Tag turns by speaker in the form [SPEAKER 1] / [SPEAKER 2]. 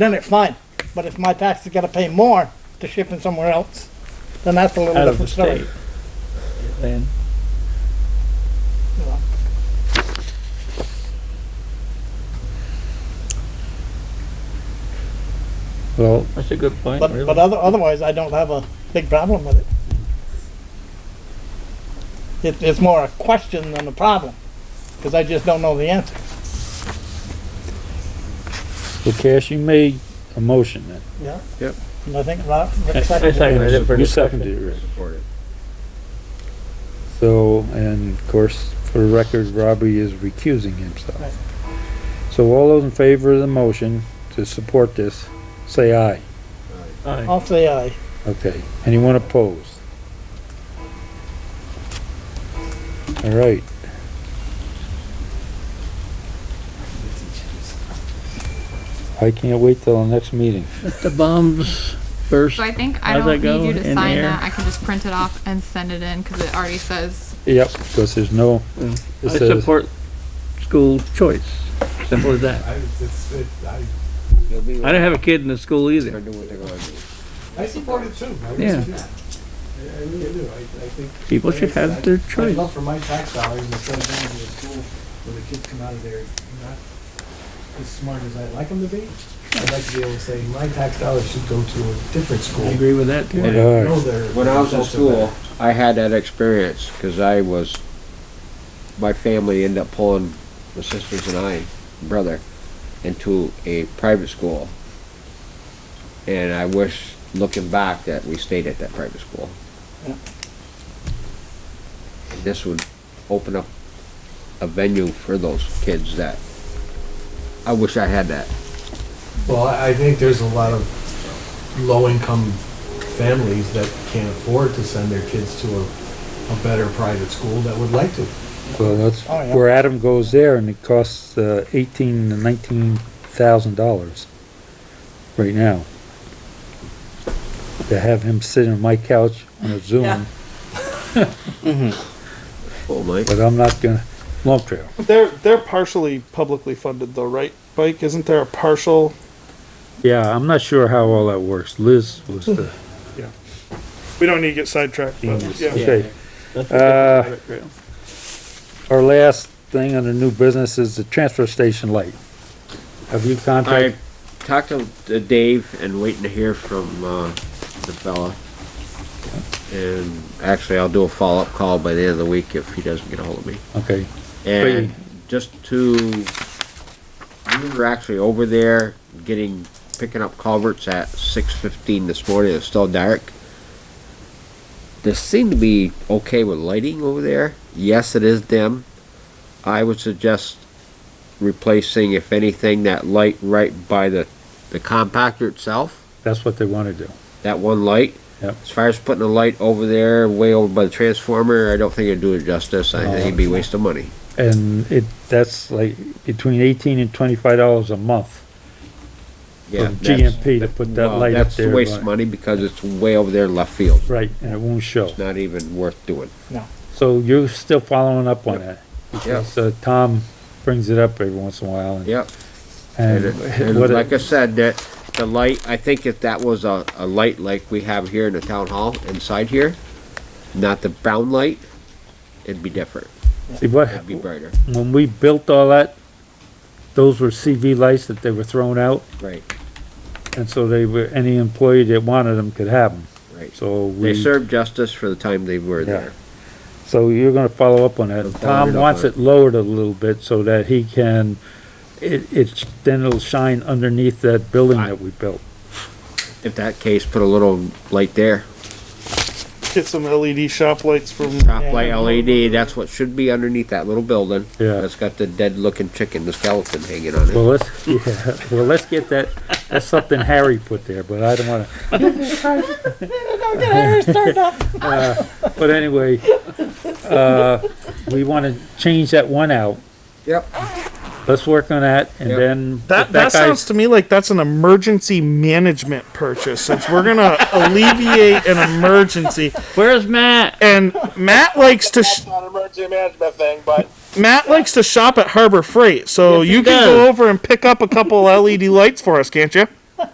[SPEAKER 1] then it's fine. But if my tax is gonna pay more to ship in somewhere else, then that's a little
[SPEAKER 2] out of the
[SPEAKER 1] different story.
[SPEAKER 2] state. Then,
[SPEAKER 1] you know.
[SPEAKER 3] Well,
[SPEAKER 2] that's a good point,
[SPEAKER 1] But, but
[SPEAKER 2] really.
[SPEAKER 1] other, otherwise, I don't have a big problem with it. It, it's more a question than a problem, because I just don't know the answer.
[SPEAKER 3] well, Cash, you made a motion then.
[SPEAKER 1] Yeah.
[SPEAKER 4] Yep.
[SPEAKER 1] And I think Rob,
[SPEAKER 2] I- I
[SPEAKER 1] Rick seconded it.
[SPEAKER 2] second it for
[SPEAKER 3] You
[SPEAKER 2] discussion.
[SPEAKER 3] seconded it, Rick.
[SPEAKER 4] Support it.
[SPEAKER 3] So, and of course, for the record, Robbie is recusing
[SPEAKER 1] Right.
[SPEAKER 3] himself. So all those in favor of the motion to support this, say aye.
[SPEAKER 2] Aye.
[SPEAKER 1] I'll say aye.
[SPEAKER 3] Okay. Anyone opposed? All right. I can't wait till the next meeting.
[SPEAKER 2] The bombs burst.
[SPEAKER 5] So I think I
[SPEAKER 2] How's that
[SPEAKER 5] don't need you
[SPEAKER 2] go?
[SPEAKER 5] to
[SPEAKER 2] In
[SPEAKER 5] sign
[SPEAKER 2] air?
[SPEAKER 5] that. I can just print it off and send it in because it already says
[SPEAKER 3] Yep, because there's no,
[SPEAKER 2] Yeah. I
[SPEAKER 3] it says,
[SPEAKER 2] support school choice, simple as that.
[SPEAKER 4] I, it's, it, I,
[SPEAKER 2] I don't have a kid in the school either.
[SPEAKER 4] I support it too.
[SPEAKER 2] Yeah.
[SPEAKER 4] I really do. I I really do. I, I think.
[SPEAKER 2] People should have their
[SPEAKER 4] I'd
[SPEAKER 2] choice.
[SPEAKER 4] love for my tax dollars instead of going to a school where the kids come out of there not as smart as I'd like them to be. I'd like to be able to say, my tax dollars should go to a different
[SPEAKER 2] I
[SPEAKER 4] school.
[SPEAKER 2] agree with that
[SPEAKER 4] where I
[SPEAKER 2] too.
[SPEAKER 3] Yeah.
[SPEAKER 4] know they're-
[SPEAKER 6] When I was in
[SPEAKER 4] they're
[SPEAKER 6] school, I had that experience, because I was, my family ended up pulling, my sisters and I, brother, into a private school. And I wish, looking back, that we stayed at that private school.
[SPEAKER 1] Yeah.
[SPEAKER 6] And This would open up a venue for those kids that, I wish I had that.
[SPEAKER 4] Well, I I think there's a lot of low-income families that can't afford to send their kids to a, a better private school that would like to.
[SPEAKER 3] well, that's
[SPEAKER 1] Oh, yeah.
[SPEAKER 3] where Adam goes there and it costs uh, eighteen to nineteen thousand dollars right now. To have him sit on my couch on a Zoom,
[SPEAKER 6] Oh, Mike.
[SPEAKER 3] but I'm not gonna, Long Trail.
[SPEAKER 7] They're they're partially publicly funded though, right? Bike isn't there a partial?
[SPEAKER 3] Yeah, I'm not sure how all that works. Liz was the,
[SPEAKER 7] We don't need to get sidetracked, but yeah.
[SPEAKER 3] okay.
[SPEAKER 2] That's
[SPEAKER 3] Uh,
[SPEAKER 2] a good-
[SPEAKER 3] Our last thing under new business is the transfer station light. Have you
[SPEAKER 6] I
[SPEAKER 3] contacted?
[SPEAKER 6] talked to to Dave and waiting to hear from, uh, the fella. And actually, I'll do a follow-up call by the end of the week if he doesn't get a hold of me.
[SPEAKER 3] Okay,
[SPEAKER 6] And just to, we were actually over there getting, picking up culverts at six fifteen this morning. It's still dark. There seemed to be okay with lighting over there. Yes, it is dim. I would suggest replacing, if anything, that light right by the, the compactor itself
[SPEAKER 3] that's what they wanna do.
[SPEAKER 6] that one light.
[SPEAKER 3] Yep.
[SPEAKER 6] As far as putting a light over there, way over by the transformer, I don't think it'd do it justice. I think it'd be a waste of money.
[SPEAKER 3] And it, that's like between eighteen and twenty-five dollars a month
[SPEAKER 6] Yeah,
[SPEAKER 3] from
[SPEAKER 6] that's-
[SPEAKER 3] GMP to put that
[SPEAKER 6] well,
[SPEAKER 3] light up
[SPEAKER 6] That's
[SPEAKER 3] there.
[SPEAKER 6] a waste
[SPEAKER 3] right.
[SPEAKER 6] of money because it's way over there left field.
[SPEAKER 3] Right, and it won't show.
[SPEAKER 6] Not even worth doing.
[SPEAKER 3] So you're still following up on that?
[SPEAKER 6] Yep,
[SPEAKER 3] So Tom brings it up every once in a while and.
[SPEAKER 6] yep. And,
[SPEAKER 3] and
[SPEAKER 6] it- and
[SPEAKER 3] what it-
[SPEAKER 6] like I said, that, the light, I think if that was a, a light like we have here in the town hall inside here, not the brown light, it'd be different.
[SPEAKER 3] See, what,
[SPEAKER 6] It'd be brighter.
[SPEAKER 3] when we built all that, those were CV lights that they were thrown out,
[SPEAKER 6] Right,
[SPEAKER 3] and so they were, any employee that wanted them could have them.
[SPEAKER 6] right.
[SPEAKER 3] So
[SPEAKER 6] They
[SPEAKER 3] we,
[SPEAKER 6] served justice for the time they were
[SPEAKER 3] Yeah.
[SPEAKER 6] there.
[SPEAKER 3] so you're gonna follow up on
[SPEAKER 6] I'll
[SPEAKER 3] that.
[SPEAKER 6] follow it
[SPEAKER 3] Tom
[SPEAKER 6] up
[SPEAKER 3] wants
[SPEAKER 6] on
[SPEAKER 3] it lowered a little bit so that he can, it, it's, then it'll shine underneath that building
[SPEAKER 6] I-
[SPEAKER 3] that we built.
[SPEAKER 6] If that case, put a little light there.
[SPEAKER 7] Get some LED shop lights from
[SPEAKER 6] Top light E
[SPEAKER 1] Yeah.
[SPEAKER 6] LED, that's what should be underneath that little building.
[SPEAKER 3] Yeah.
[SPEAKER 6] That's got the dead looking chicken, the skeleton hanging on
[SPEAKER 3] Well,
[SPEAKER 6] it.
[SPEAKER 3] let's, yeah, well, let's get that, that's something Harry put there, but I don't wanna. Uh, But anyway, uh, we wanna change that one out.
[SPEAKER 6] Yep.
[SPEAKER 3] Let's work on that and
[SPEAKER 6] Yep.
[SPEAKER 3] then. if
[SPEAKER 7] That, that
[SPEAKER 3] guy-
[SPEAKER 7] sounds to me like that's an emergency management purchase. Since we're gonna alleviate an emergency,
[SPEAKER 2] Where's Matt?
[SPEAKER 7] and Matt likes to sh-
[SPEAKER 8] It's not an emergency management thing, but
[SPEAKER 7] Matt likes to shop at Harbor Freight, so
[SPEAKER 2] Yes, he
[SPEAKER 7] you can
[SPEAKER 2] does.
[SPEAKER 7] go over and pick up a couple LED E lights for us, can't you?